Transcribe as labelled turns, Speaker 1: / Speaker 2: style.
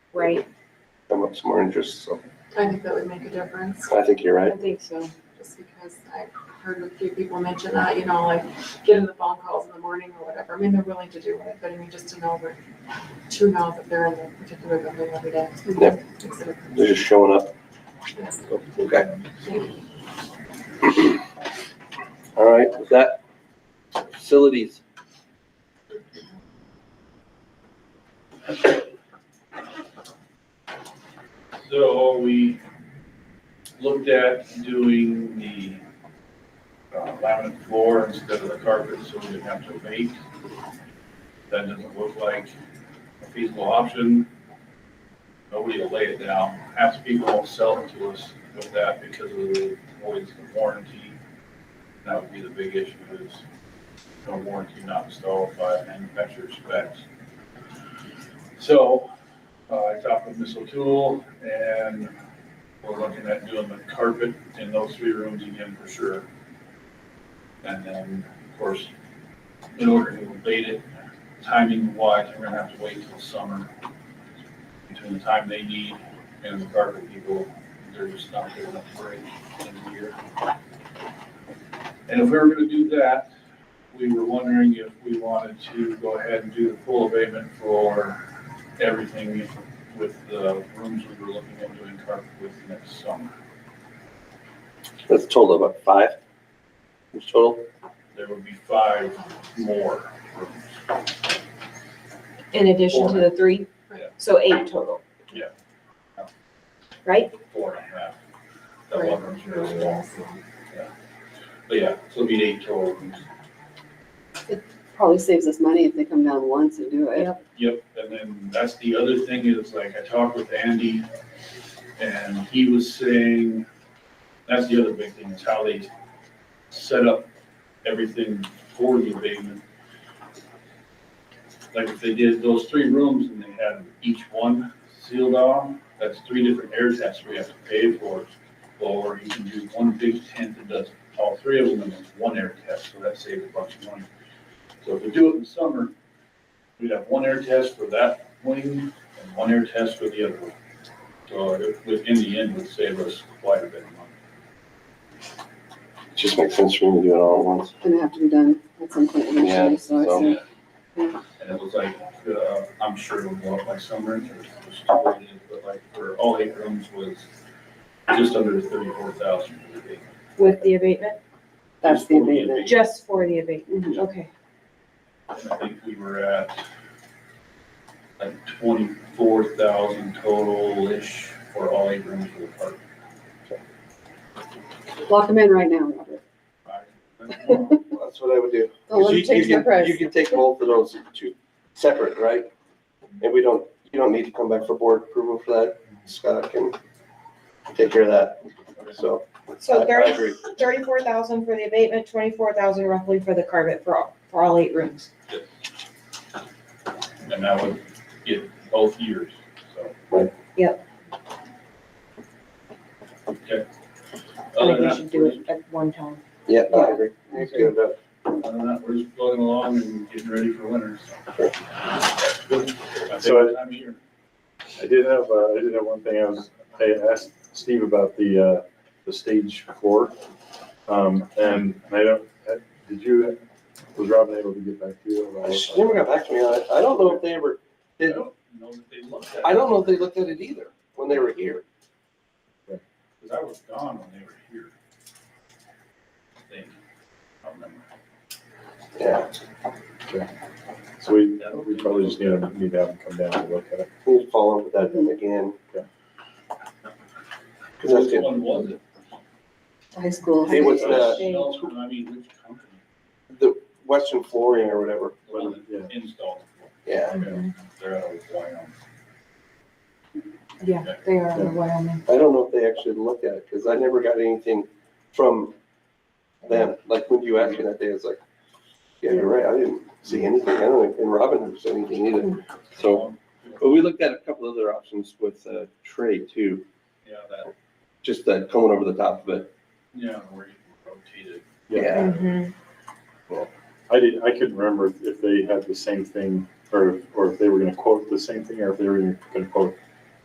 Speaker 1: Right,
Speaker 2: come up some more interest, so
Speaker 3: I think that would make a difference,
Speaker 2: I think you're
Speaker 1: I
Speaker 2: right.
Speaker 1: think so.
Speaker 3: just because I've heard a few people mention that, you know, like getting the phone calls in the morning or whatever. I mean, they're willing to do it, but I mean, just to know where, to know that they're in the particular building every day.
Speaker 2: Yep.
Speaker 3: Makes a difference.
Speaker 2: They're just showing up.
Speaker 3: Yes.
Speaker 2: Okay.
Speaker 3: Thank you.
Speaker 2: All right, with that, facilities.
Speaker 4: So we looked at doing the uh, laminate floor instead of the carpet, so we didn't have to bake. That doesn't look like a feasible option. Nobody will lay it down. Half the people won't sell it to us with that because of the voids of warranty. That would be the big issue is no warranty not installed by manufacturer specs. So uh, I talked with Miss O'Toole and we're looking at doing the carpet in those three rooms again for sure. And then, of course, in order to abate it, timing wise, we're gonna have to wait till summer. Between the time they need and the carpet people, they're just not good enough break in the year. And if we were gonna do that, we were wondering if we wanted to go ahead and do the full abatement for everything with the rooms we were looking at doing carpet with next summer.
Speaker 2: That's a total of about five. It's total.
Speaker 4: There would be five more rooms.
Speaker 1: In addition to the three?
Speaker 4: Yeah.
Speaker 1: So eight total?
Speaker 4: Yeah.
Speaker 1: Right?
Speaker 4: Four and a half. That one room's really long.
Speaker 3: It
Speaker 4: But yeah, so it'd be eight total rooms.
Speaker 5: Probably saves us money if they come down once and do it.
Speaker 1: Yep.
Speaker 4: Yep, and then that's the other thing is like I talked with Andy and he was saying, that's the other big thing is how they set up everything for the abatement. Like if they did those three rooms and they had each one sealed off, that's three different air tests we have to pay for. Or you can do one big tent that does all three of them in one air test, so that saves a bunch of money. So if we do it in summer, we'd have one air test for that wing and one air test for the other wing. So it would, in the end, would save us quite a bit of money.
Speaker 2: It just makes sense for me to do it all at once.
Speaker 5: Gonna have to be done at some point
Speaker 2: Yeah,
Speaker 5: eventually, so I
Speaker 2: so-
Speaker 5: say,
Speaker 4: And it was like, uh, I'm sure it'll go up by summer, it was still what it is, but like for all eight rooms was just under thirty-four thousand.
Speaker 1: With the abatement?
Speaker 5: that's the abatement.
Speaker 1: Just for the abatement,
Speaker 4: Mhm.
Speaker 1: okay.
Speaker 4: I think we were at like twenty-four thousand total-ish for all eight rooms for the park.
Speaker 5: Lock them in right now, Robert.
Speaker 2: That's what I would do.
Speaker 5: Don't let
Speaker 2: You-
Speaker 5: them
Speaker 2: you
Speaker 5: change their
Speaker 2: can- You
Speaker 5: price.
Speaker 2: can take both of those two separate, right? And we don't, you don't need to come back for board approval for that. Scott can take care of that, so. I-
Speaker 1: So
Speaker 2: I
Speaker 1: thirty,
Speaker 2: agree.
Speaker 1: thirty-four thousand for the abatement, twenty-four thousand roughly for the carpet for all, for all eight rooms.
Speaker 4: And that would get both years, so.
Speaker 2: Right.
Speaker 1: Yep.
Speaker 4: Okay.
Speaker 1: I think
Speaker 4: Other than
Speaker 1: we
Speaker 4: that,
Speaker 1: should do it at one time.
Speaker 2: Yeah, I agree. Let's get it up.
Speaker 4: we're- Other than that, we're just plugging along and getting ready for winter, so.
Speaker 2: Sure.
Speaker 4: Good. My
Speaker 6: So I-
Speaker 4: favorite time of year.
Speaker 6: I did have, uh, I did have one thing, I was, I asked Steve about the, uh, the stage floor. Um, and I don't, uh, did you, was Robin able to get back to you? about-
Speaker 2: She never got back to me on it. I don't know if they ever,
Speaker 4: I
Speaker 2: did,
Speaker 4: don't Oh, know that they looked at
Speaker 2: I
Speaker 4: it,
Speaker 2: don't know if they looked at it either when they were here.
Speaker 4: because I was gone when they were here. I think, I don't remember.
Speaker 2: Yeah.
Speaker 6: So we, we probably just need to, need to have him come down and look at it.
Speaker 2: We'll follow up with that then again.
Speaker 6: Okay.
Speaker 2: Cause that's
Speaker 4: Which
Speaker 2: good.
Speaker 4: one was it?
Speaker 5: High school.
Speaker 2: Hey, what's that?
Speaker 4: No, I mean, which company?
Speaker 2: The Western flooring or whatever.
Speaker 4: The one
Speaker 6: Yeah.
Speaker 4: that installed.
Speaker 2: Yeah,
Speaker 1: Mm-hmm.
Speaker 4: Okay, They're out of Wyoming.
Speaker 1: Yeah, they are in Wyoming.
Speaker 2: I don't know if they actually looked at it because I never got anything from them. Like when you asked me that day, I was like, yeah, you're right. I didn't see anything. I don't think, and Robin didn't see anything either. So, but we looked at a couple other options with uh, Trey too,
Speaker 4: Yeah, that,
Speaker 2: just that coming over the top of it.
Speaker 4: yeah, where you can rotate it.
Speaker 2: Yeah.
Speaker 1: Mhm.
Speaker 6: I did, I couldn't remember if- if they had the same thing, or, or if they were gonna quote the same thing, or if they were gonna quote